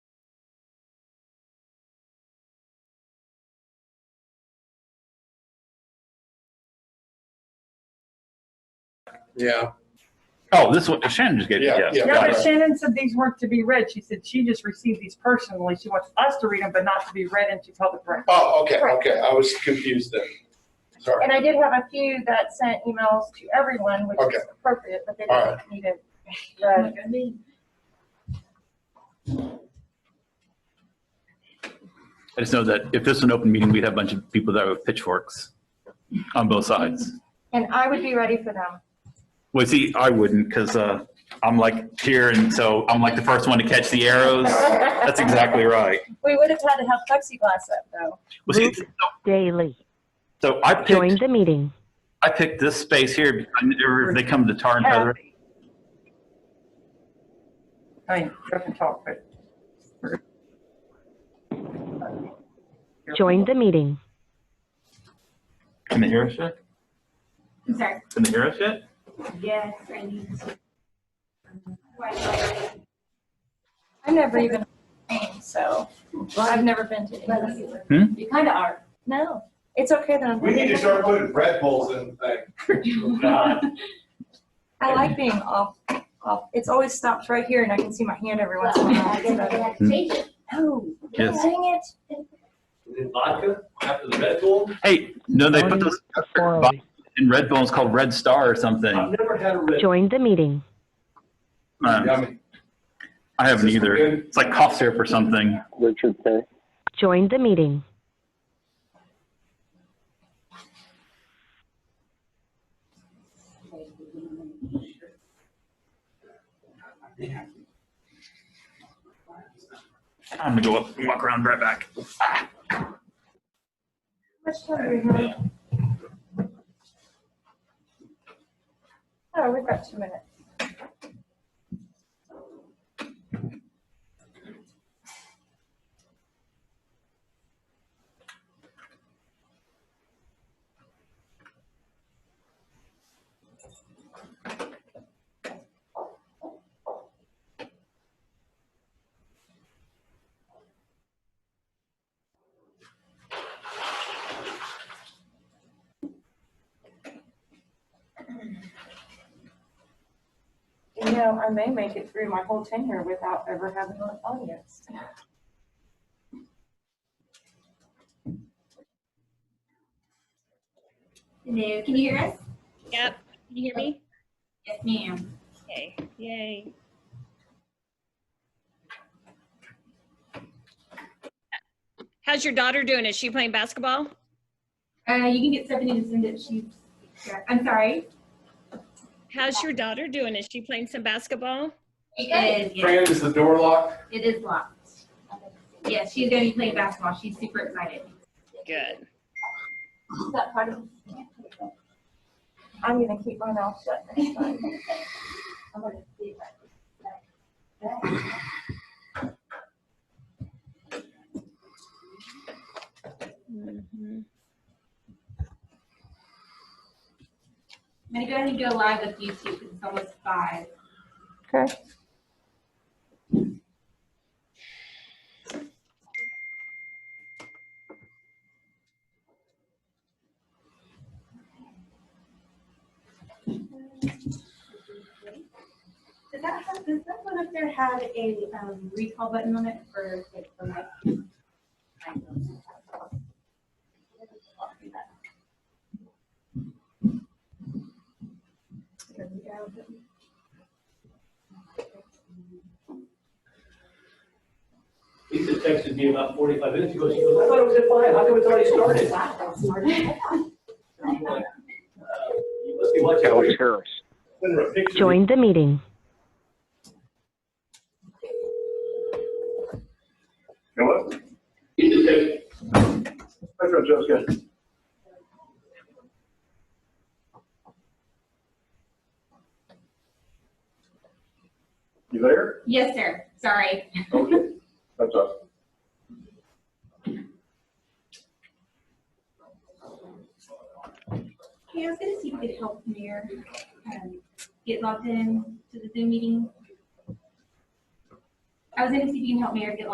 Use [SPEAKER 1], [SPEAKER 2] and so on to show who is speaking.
[SPEAKER 1] Yeah,
[SPEAKER 2] Oh, this one, Shannon just gave it,
[SPEAKER 1] Yeah,
[SPEAKER 2] yes.
[SPEAKER 1] yeah.
[SPEAKER 3] Yeah,
[SPEAKER 2] got
[SPEAKER 3] but
[SPEAKER 2] it.
[SPEAKER 3] Shannon said these weren't to be read. She said she just received these personally. She wants us to read them, but not to be read into public record.
[SPEAKER 1] oh, okay,
[SPEAKER 4] Right.
[SPEAKER 1] okay, I was confused then. Sorry,
[SPEAKER 4] And I did have a few that sent emails to everyone, which
[SPEAKER 1] Okay.
[SPEAKER 4] is appropriate, but they
[SPEAKER 1] All
[SPEAKER 4] didn't need it. read.
[SPEAKER 2] I just know that if this was an open meeting, we'd have a bunch of people that were pitchforks on both sides.
[SPEAKER 4] And I would be ready for them.
[SPEAKER 2] Well, see, I wouldn't because uh, I'm like here and so I'm like the first one to catch the arrows. That's exactly right.
[SPEAKER 4] We would have had to have plexiglass up though.
[SPEAKER 2] Well, see,
[SPEAKER 5] Daily.
[SPEAKER 2] so I
[SPEAKER 5] Join
[SPEAKER 2] picked,
[SPEAKER 5] the meeting.
[SPEAKER 2] I picked this space here because I never- if they come to tar and feather.
[SPEAKER 3] I mean, you can talk, but.
[SPEAKER 5] Join the meeting.
[SPEAKER 2] Can they hear us yet?
[SPEAKER 6] I'm sorry.
[SPEAKER 2] Can they hear us yet?
[SPEAKER 6] Yes, I need to. Why?
[SPEAKER 4] I've never even, been, so I've never been to any. of these.
[SPEAKER 6] You kind of are.
[SPEAKER 4] No, it's okay that I'm.
[SPEAKER 7] We need to start putting Red Bulls in things.
[SPEAKER 4] I like being off, off. It's always stopped right here and I can see my hand every once in a
[SPEAKER 6] Well, I guess
[SPEAKER 4] while.
[SPEAKER 6] they have to change it.
[SPEAKER 4] Oh,
[SPEAKER 2] Yes.
[SPEAKER 4] dang it.
[SPEAKER 7] Vodka after the Red Bull?
[SPEAKER 2] Hey, no, they put those
[SPEAKER 5] Orally.
[SPEAKER 2] in Red Bull. It's called Red Star or
[SPEAKER 7] I've
[SPEAKER 2] something.
[SPEAKER 7] never had a Red.
[SPEAKER 5] Join the meeting.
[SPEAKER 2] Um,
[SPEAKER 1] yummy.
[SPEAKER 2] I haven't
[SPEAKER 1] Is this
[SPEAKER 2] either.
[SPEAKER 1] good?
[SPEAKER 2] It's like cough syrup or something.
[SPEAKER 8] Richard K.
[SPEAKER 5] Join the meeting.
[SPEAKER 2] I'm gonna go up and walk around right back.
[SPEAKER 4] Much time do we have? Oh, we've got two minutes. You know, I may make it through my whole tenure without ever having an audience.
[SPEAKER 6] Hello, can you hear us?
[SPEAKER 9] Yep. Can you hear me?
[SPEAKER 6] Yes, ma'am.
[SPEAKER 9] Okay. Yay. How's your daughter doing? Is she playing basketball?
[SPEAKER 6] Uh, you can get Stephanie to send it. She's, I'm sorry.
[SPEAKER 9] How's your daughter doing? Is she playing some basketball?
[SPEAKER 6] It is, yes.
[SPEAKER 1] Fran, is the door locked?
[SPEAKER 6] It is locked. Yes, she's going to be playing basketball. She's super excited.
[SPEAKER 9] Good.
[SPEAKER 6] that part of?
[SPEAKER 4] I'm gonna keep my mouth shut next time.
[SPEAKER 9] Mhm.
[SPEAKER 6] I'm going to go ahead and go live with YouTube because it's almost five.
[SPEAKER 4] Okay.
[SPEAKER 6] Does that have, does that one up there have a um, recall button on it for like the mic?
[SPEAKER 7] Lisa texted me about forty-five minutes ago, she goes, I thought it was at five, how come it's already started?
[SPEAKER 6] Wow, that's smart.
[SPEAKER 7] I'm like, "Uh, You must be watching.
[SPEAKER 8] Kelly Harris.
[SPEAKER 7] Send her a picture.
[SPEAKER 5] Join the meeting.
[SPEAKER 7] Hello? Lisa texted- Hi, Francesca. You there?
[SPEAKER 6] Yes, sir. Sorry.
[SPEAKER 7] Okay, that's us.
[SPEAKER 6] Hey, I was gonna see if you could help Mayor um, get logged in to the Zoom meeting. I was gonna see if you can help Mayor get logged